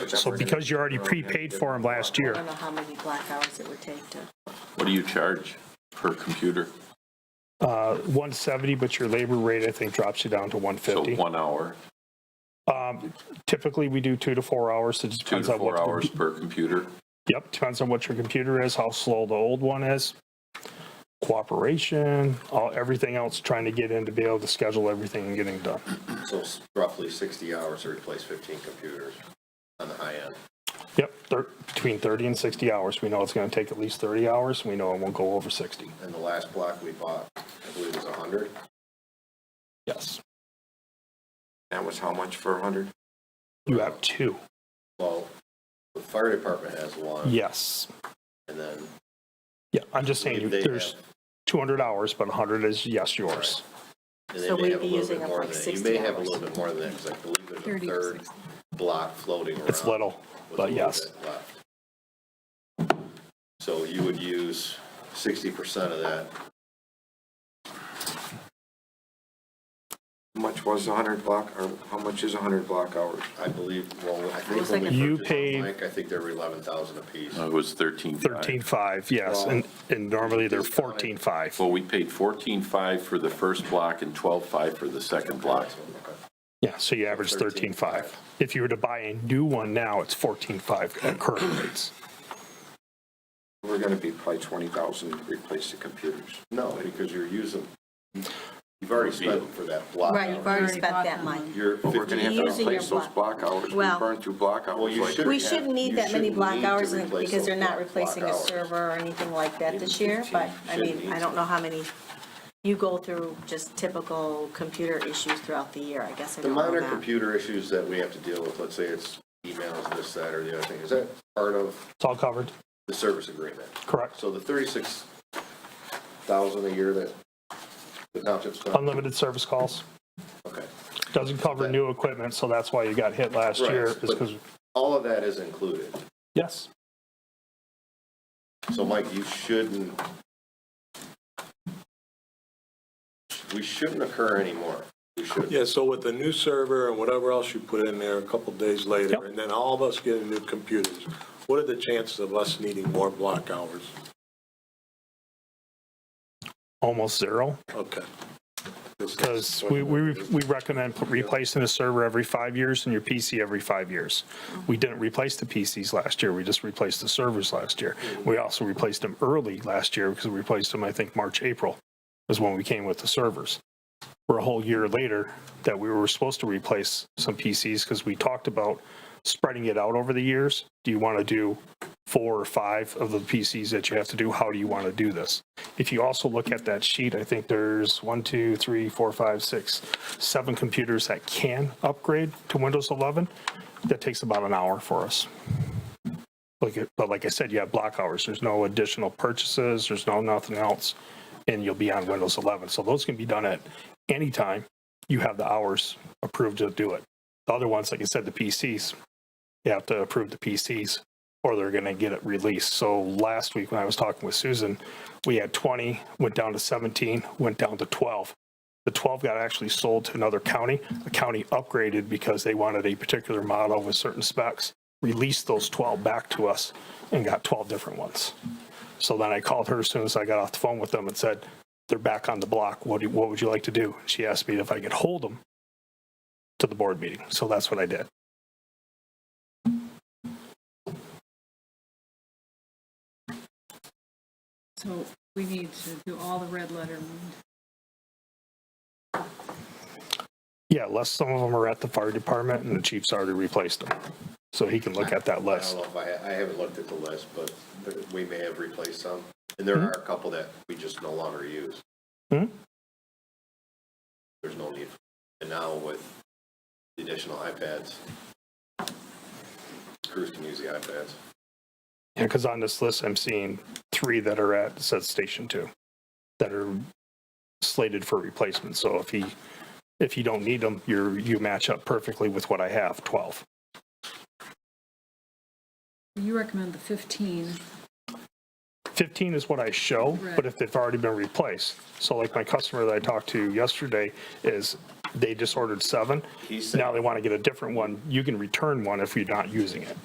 So because you already prepaid for them last I year, don't know how many black hours it would take to, What do you charge per computer? uh, 170, but your labor rate, I think, drops you down to So 150. one hour, Um, Typically, we do two to four hours. It just two depends to on four what. hours per computer. Yep, depends on what your computer is, how slow the old one is, cooperation, all, everything else, trying to get in to be able to schedule everything and getting done. So it's roughly 60 hours to replace 15 computers on the high end. Yep, thir- between 30 and 60 hours. We know it's going to take at least 30 hours. We know it won't go over 60. And the last block we bought, I believe was 100. Yes. That was how much for 100? You have two. Well, the fire department has one, Yes. and then Yeah, I'm just saying, you- They there's have- 200 hours, but 100 is yes, yours. and they So may we'd have a be little using bit up more like than that. You 60 may have a hours. little bit more than that, because I believe there's a third block floating around. It's little, with a but little yes. bit left. So you would use 60% of that. How much was the 100 block, or how much is 100 block hours? I believe, well, I think was when we like a- You purchased them, paid- Mike, I think they were 11,000 apiece. No, It was 13.5. 13.5, yes, and, and normally they're 14.5. Well, we paid 14.5 for the first block and 12.5 for the second block. Yeah, so you average 13.5. If you were to buy a new one now, it's 14.5 at current rates. We're gonna be probably 20,000 to replace the computers. No, because you're using, you've already spent for that block. right, you've already spent that money. Uh, You're But we're gonna have to Using your replace those block- block hours. We Well- burned through block Well, hours you like should- We shouldn't need that many You shouldn't black need to hours in- replace because they're those not block replacing a hours. server or anything like that this year, but I mean, I don't know how many you go through just typical computer issues throughout the year, I guess I The don't minor know that. computer issues that we have to deal with, let's say it's emails, this, that, or the other thing, is that part of It's all covered, the service agreement? correct? So the thirty-six thousand a year that the township's spent? Unlimited service calls, Okay. doesn't cover new equipment, so that's why you got hit last Right, year, is but- because, All of that is included. yes, So Mike, you shouldn't, we shouldn't occur anymore. We should. Yeah, so with the new server and whatever else you put in there a couple days Yep. later, and then all of us getting new computers, what are the chances of us needing more block hours? almost zero. Okay. This is- Because we, we, we recommend replacing a server every five years and your PC every five years. We didn't replace the PCs last year, we just replaced the servers last year. We also replaced them early last year because we replaced them, I think, March, April is when we came with the servers. We're a whole year later that we were supposed to replace some PCs because we talked about spreading it out over the years. Do you want to do four or five of the PCs that you have to do? How do you want to do this? If you also look at that sheet, I think there's one, two, three, four, five, six, seven computers that can upgrade to Windows 11. That takes about an hour for us. Like, it- but like I said, you have block hours. There's no additional purchases. There's no nothing else. And you'll be on Windows 11. So those can be done at any time. You have the hours approved to do it. The other ones, like I said, the PCs, you have to approve the PCs or they're going to get it released. So last week when I was talking with Susan, we had 20, went down to 17, went down to 12. The 12 got actually sold to another county. The county upgraded because they wanted a particular model with certain specs, released those 12 back to us and got 12 different ones. So then I called her as soon as I got off the phone with them and said, they're back on the block. What, do, what would you like to do? She asked me if I could hold them to the board meeting. So that's what I did. So we need to do all the red letter moves. Yeah, unless some of them are at the fire department and the chief's already replaced them. So he can look at that I list. don't know if I, I haven't looked at the list, but there- we may have replaced some. And there are a couple that we just no longer use. Hmm? There's no need. And now with the additional iPads, crews can use the iPads. Yeah, because on this list, I'm seeing three that are at, says Station Two, that are slated for replacement. So if he, if you don't need them, you're, you match up perfectly with what I have, 12. You recommend the 15. 15 is what I show, but Right. if they've already been replaced. So like my customer that I talked to yesterday is, they just ordered seven. He said- Now they want to get a different one. You can return one if you're not using it.